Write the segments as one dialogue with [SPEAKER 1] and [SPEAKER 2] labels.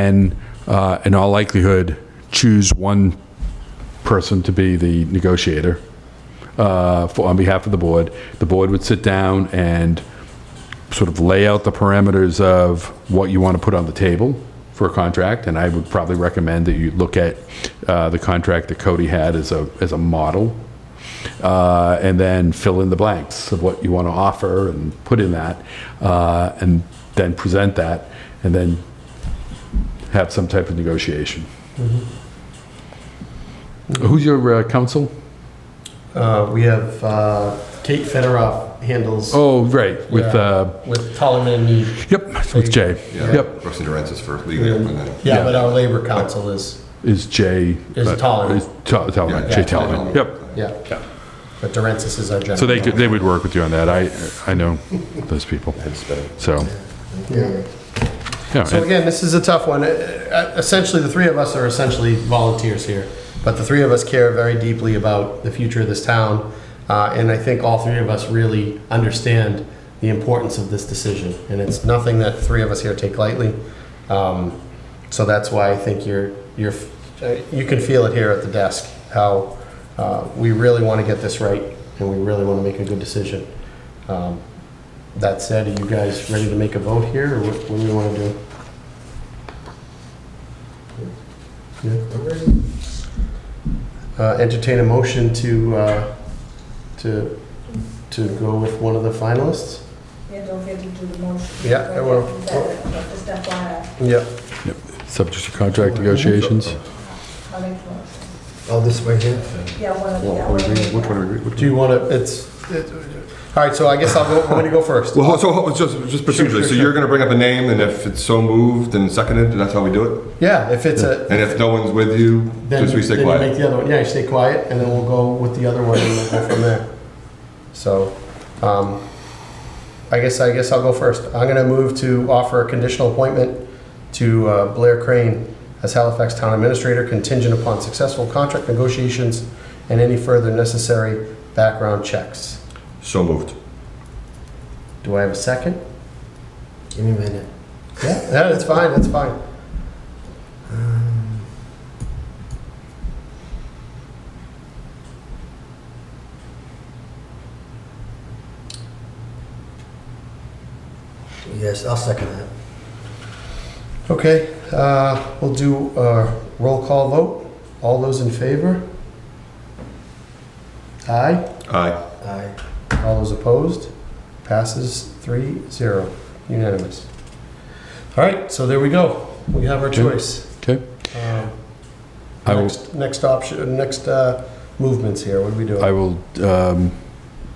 [SPEAKER 1] and uh, in all likelihood, choose one person to be the negotiator uh, for, on behalf of the board. The board would sit down and sort of lay out the parameters of what you want to put on the table for a contract, and I would probably recommend that you look at uh, the contract that Cody had as a, as a model, uh, and then fill in the blanks of what you want to offer and put in that, uh, and then present that, and then have some type of negotiation. Who's your uh, counsel?
[SPEAKER 2] Uh, we have uh, Kate Federoff handles
[SPEAKER 1] Oh, right, with, uh,
[SPEAKER 2] with Tollerman and Need.
[SPEAKER 1] yep, with Jay.
[SPEAKER 3] Yeah,
[SPEAKER 1] Yep,
[SPEAKER 3] Rusty Durant's is for legal, and
[SPEAKER 2] Yeah,
[SPEAKER 3] then,
[SPEAKER 2] but our labor council is,
[SPEAKER 1] is Jay.
[SPEAKER 2] Is
[SPEAKER 1] uh,
[SPEAKER 2] Tolliver.
[SPEAKER 1] is Tol- Tolliver,
[SPEAKER 3] Yeah,
[SPEAKER 1] Jay
[SPEAKER 3] yeah,
[SPEAKER 1] Tolliver,
[SPEAKER 3] Tolliver.
[SPEAKER 1] yep.
[SPEAKER 2] yeah. But Durensis is our general.
[SPEAKER 1] So they, could- they would work with you on that. I, I know those people, so.
[SPEAKER 2] Yeah.
[SPEAKER 1] yeah,
[SPEAKER 2] So
[SPEAKER 1] and-
[SPEAKER 2] again, this is a tough one. Uh, uh, Essentially, the three of us are essentially volunteers here, but the three of us care very deeply about the future of this town, uh, and I think all three of us really understand the importance of this decision, and it's nothing that the three of us here take lightly. Um, So that's why I think you're, you're, uh, you can feel it here at the desk, how uh, we really want to get this right, and we really want to make a good decision. Um, That said, are you guys ready to make a vote here, or what what do we want to do? Uh, Entertain a motion to, uh, to, to go with one of the finalists?
[SPEAKER 4] Yeah, don't forget to do the motion.
[SPEAKER 2] Yeah, I will.
[SPEAKER 4] Just uh, FYI,
[SPEAKER 2] Yep.
[SPEAKER 1] Subject to contract negotiations.
[SPEAKER 4] I'll make the motion.
[SPEAKER 5] Oh, this way here?
[SPEAKER 4] Yeah, one of the.
[SPEAKER 3] Well, what do we read? Which one are we reading?
[SPEAKER 2] Do you want to, it's, it- all right, so I guess I'll go, I'm going to go first.
[SPEAKER 3] Well, so, hold- just, just procedurally, so you're gonna bring up a name, and if it's so moved and seconded, that's how we do it?
[SPEAKER 2] Yeah, if it's a,
[SPEAKER 3] And if no one's with you,
[SPEAKER 2] then
[SPEAKER 3] just we
[SPEAKER 2] then
[SPEAKER 3] stay
[SPEAKER 2] you make
[SPEAKER 3] quiet?
[SPEAKER 2] the other one, yeah, you stay quiet, and then we'll go with the other one and we'll go from there. So, um, I guess, I guess I'll go first. I'm going to move to offer a conditional appointment to uh, Blair Crane as Halifax Town Administrator contingent upon successful contract negotiations and any further necessary background checks.
[SPEAKER 3] So moved.
[SPEAKER 2] Do I have a second?
[SPEAKER 5] Give me a minute.
[SPEAKER 2] Yeah, that's fine, that's fine.
[SPEAKER 5] Um, Yes, I'll second that.
[SPEAKER 2] Okay, uh, we'll do a roll call vote. All those in favor? Aye.
[SPEAKER 3] Aye.
[SPEAKER 5] Aye.
[SPEAKER 2] All those opposed? Passes three zero, unanimous. All right, so there we go. We have our choice.
[SPEAKER 1] Okay.
[SPEAKER 2] Um,
[SPEAKER 1] I will,
[SPEAKER 2] Next, next option, next uh, movements here, what do we do?
[SPEAKER 1] I will, um,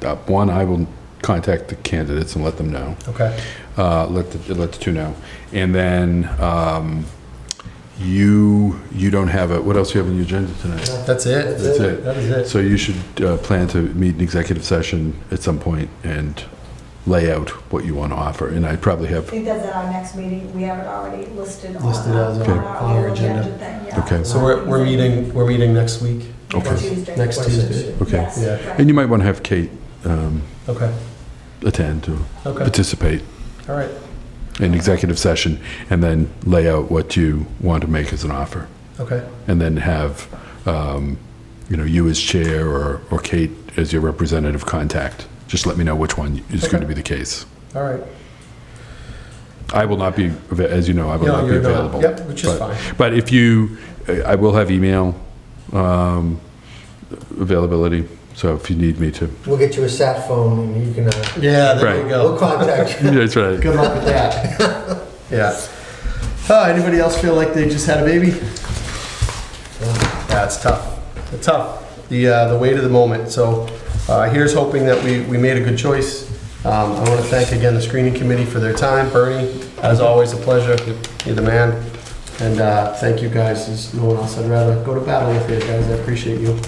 [SPEAKER 1] uh, one, I will contact the candidates and let them know.
[SPEAKER 2] Okay,
[SPEAKER 1] uh, let the, let the two know. And then um, you, you don't have a, what else do you have on your agenda tonight?
[SPEAKER 2] that's it.
[SPEAKER 1] That's it.
[SPEAKER 2] That is it.
[SPEAKER 1] So you should uh, plan to meet an executive session at some point and lay out what you want to offer. And I probably
[SPEAKER 4] I
[SPEAKER 1] have,
[SPEAKER 4] think that's at our next meeting, we have it already listed on.
[SPEAKER 2] Listed as
[SPEAKER 4] on
[SPEAKER 2] our-
[SPEAKER 4] our
[SPEAKER 2] on our
[SPEAKER 4] little
[SPEAKER 2] agenda.
[SPEAKER 4] thing, yeah.
[SPEAKER 1] Okay.
[SPEAKER 2] So we're, we're meeting, we're meeting next week?
[SPEAKER 1] Okay.
[SPEAKER 4] Tuesday.
[SPEAKER 2] Next Tuesday.
[SPEAKER 1] Okay.
[SPEAKER 4] Yes,
[SPEAKER 2] Yeah.
[SPEAKER 4] right.
[SPEAKER 1] and you might want to have Kate um,
[SPEAKER 2] Okay,
[SPEAKER 1] attend or
[SPEAKER 2] okay,
[SPEAKER 1] participate
[SPEAKER 2] all right,
[SPEAKER 1] in executive session and then lay out what you want to make as an offer.
[SPEAKER 2] okay.
[SPEAKER 1] and then have, um, you know, you as chair or, or Kate as your representative contact. Just let me know which one is going to be the case.
[SPEAKER 2] All right.
[SPEAKER 1] I will not be, ava- as you know, I will
[SPEAKER 2] No,
[SPEAKER 1] not be
[SPEAKER 2] you're not.
[SPEAKER 1] available.
[SPEAKER 2] Yep, which is
[SPEAKER 1] But-
[SPEAKER 2] fine.
[SPEAKER 1] But if you, I will have email um, availability, so if you need me to.
[SPEAKER 5] We'll get you a sat phone and you can, uh,
[SPEAKER 2] Yeah, there
[SPEAKER 1] Right.
[SPEAKER 2] you
[SPEAKER 5] we'll
[SPEAKER 2] go.
[SPEAKER 5] contact you.
[SPEAKER 1] That's right.
[SPEAKER 2] Good luck with that. yeah. Uh, anybody else feel like they just had a baby? Yeah, it's tough. It's tough. The uh, the weight of the moment. So uh, here's hoping that we, we made a good choice. Um, I want to thank again the screening committee for their time. Bernie, as always, a pleasure. You're the man. And uh, thank you guys. There's no one else I'd rather go to battle with you guys. I appreciate you.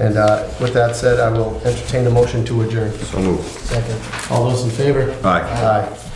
[SPEAKER 2] And uh, with that said, I will entertain a motion to adjourn.
[SPEAKER 3] So moved.
[SPEAKER 5] Second.
[SPEAKER 2] All those in favor?
[SPEAKER 3] Aye.
[SPEAKER 2] Aye.